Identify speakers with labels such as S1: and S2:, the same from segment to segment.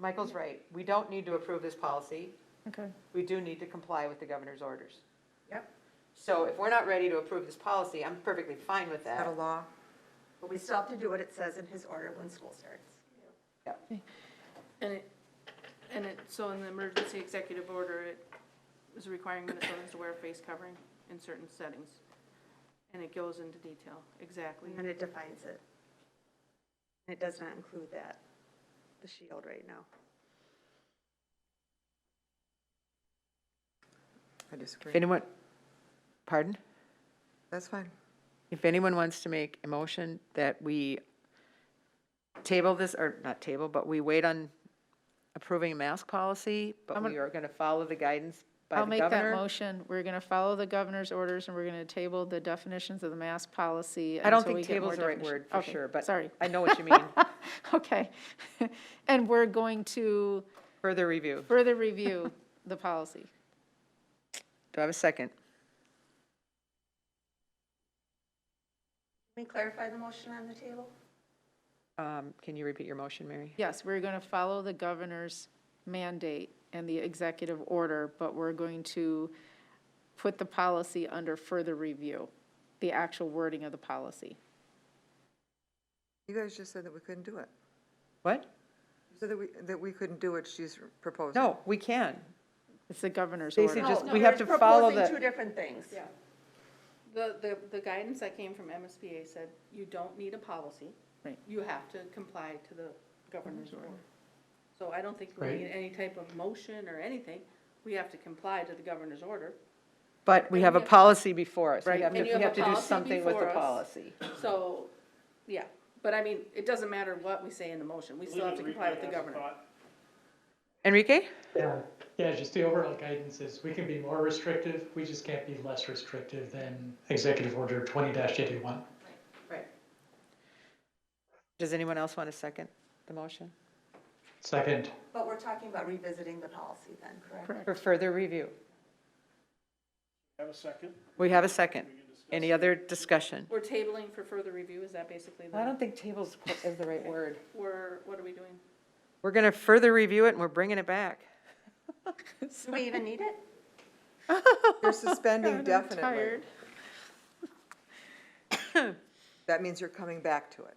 S1: Michael's right. We don't need to approve this policy.
S2: Okay.
S1: We do need to comply with the governor's orders.
S3: Yep.
S1: So if we're not ready to approve this policy, I'm perfectly fine with
S3: Out
S1: that.
S3: of law. But we still have to do what it says in his order when school starts.
S4: And it, and it, so in the emergency executive order, it was requiring Minnesotans to wear face covering in certain settings. And it goes into detail, exactly.
S3: And then it defines it. And it does not include that, the shield right now.
S5: I disagree.
S1: anyone, pardon?
S5: That's fine.
S1: If anyone wants to make a motion that we table this, or not table, but we wait on approving a mask policy, but we are going to follow the guidance by
S2: I'll
S1: the
S2: make that
S1: governor.
S2: motion. We're going to follow the governor's orders and we're going to table the definitions of the mask policy.
S1: I don't
S2: until we
S1: think
S2: get more
S1: table's the right
S2: definition.
S1: word for
S2: Okay,
S1: sure, but
S2: Sorry.
S1: I know what you mean.
S2: Okay. And we're going to
S1: Further review.
S2: further review the policy.
S1: Do I have a second?
S3: Can we clarify the motion on the table?
S1: Um, Can you repeat your motion, Mary?
S2: Yes, we're going to follow the governor's mandate and the executive order, but we're going to put the policy under further review, the actual wording of the policy.
S5: You guys just said that we couldn't do it.
S1: What?
S5: You said that we, that we couldn't do what she's proposing.
S1: No, we can.
S2: It's the governor's order.
S1: Stacy just, we have to follow
S3: Oh, Two
S1: the,
S3: different things.
S4: Yeah. The, the, the guidance that came from MSBA said, you don't need a policy.
S2: Right.
S4: You have to comply to the governor's order. So I don't think we need any type of motion or anything. We have to comply to the governor's order.
S1: but we have a
S4: And you-
S1: policy before us. We
S2: Right.
S1: have to,
S4: And
S1: we
S4: you have
S1: have
S4: a
S1: to do
S4: policy
S1: something with the
S4: before us.
S1: policy.
S4: So, yeah, but I mean, it doesn't matter what we say in the motion, we still have to comply with the governor.
S1: Enrique?
S6: Yeah, yeah, just the overall guidance is we can be more restrictive, we just can't be less restrictive than Executive Order twenty eighty-one.
S4: Right.
S1: Does anyone else want to second the motion?
S6: Second,
S3: But we're talking about revisiting the policy then, correct?
S1: For further review.
S7: Have a second?
S1: We have a second. Any other discussion?
S4: We're tabling for further review, is that basically
S1: I
S4: the,
S1: don't think tables qu- is the right word.
S4: we're, what are we doing?
S1: We're going to further review it and we're bringing it back.
S3: Do we even need it?
S5: You're suspending definitely.
S2: Tired.
S5: That means you're coming back to it.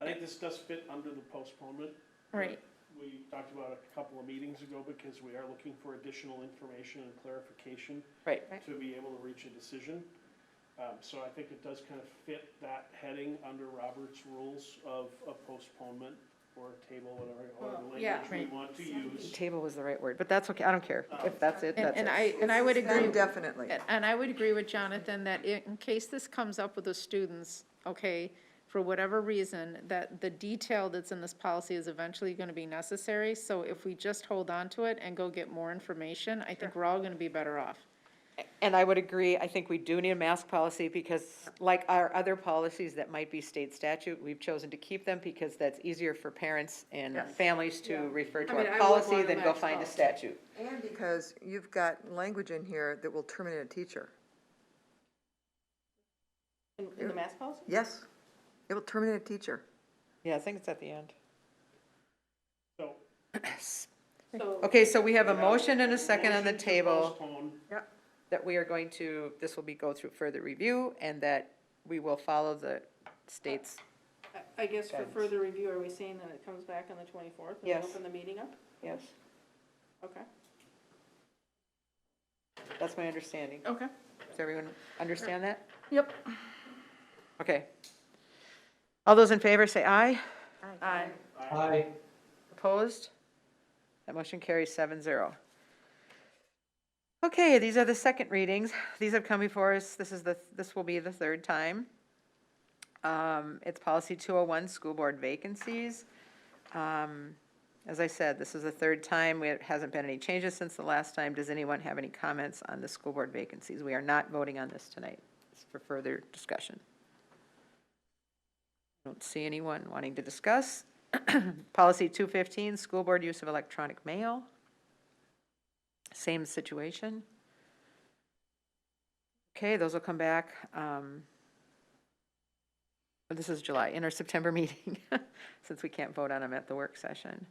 S7: I think this does fit under the postponement.
S2: Right.
S7: We talked about it a couple of meetings ago because we are looking for additional information and clarification
S1: Right.
S7: to be able to reach a decision. Um, so I think it does kind of fit that heading under Robert's rules of a postponement or table, whatever, whatever
S4: Well, yeah,
S7: language we
S2: right.
S7: want to use.
S1: Table was the right word, but that's okay. I don't care. If that's it,
S2: And
S1: that's
S2: and
S1: it.
S2: I, and I would agree.
S5: Suspend Definitely.
S2: And- And I would agree with Jonathan that i- in case this comes up with the students, okay, for whatever reason, that the detail that's in this policy is eventually going to be necessary. So if we just hold on to it and go get more information, I think we're all going to be better off.
S1: And I would agree, I think we do need a mask policy because like our other policies that might be state statute, we've chosen to keep them because that's easier for parents and families to refer to
S4: I mean, I
S1: our
S4: would
S1: policy
S4: want a
S1: than go
S4: mask
S1: find a
S4: policy.
S1: statute.
S5: And because you've got language in here that will terminate a teacher.
S4: In, in the mask policy?
S5: Yes, it will terminate a teacher.
S1: Yeah, I think it's at the end.
S7: So.
S4: So,
S1: Okay, so we have a motion and a second on the
S7: motion to
S1: table
S7: postpone.
S1: that we are going to, this will be go through further review and that we will follow the state's.
S4: I- I guess for further review, are we saying that it comes back on the twenty-fourth?
S1: Yes.
S4: Open the meeting up?
S1: Yes.
S4: Okay.
S1: That's my understanding.
S4: Okay.
S1: Does everyone understand that?
S4: Yep.
S1: Okay. All those in favor say aye.
S4: Aye.
S6: aye.
S1: Opposed? That motion carries seven zero. Okay, these are the second readings. These have come before us. This is the, this will be the third time. Um, it's policy two oh one, school board vacancies. Um, as I said, this is the third time. It hasn't been any changes since the last time. Does anyone have any comments on the school board vacancies? We are not voting on this tonight. It's for further discussion. Don't see anyone wanting to discuss. Policy 215, school board use of electronic mail. Same situation. Okay, those will come back. um, this is July, in our September meeting, since we can't vote on them at the work session.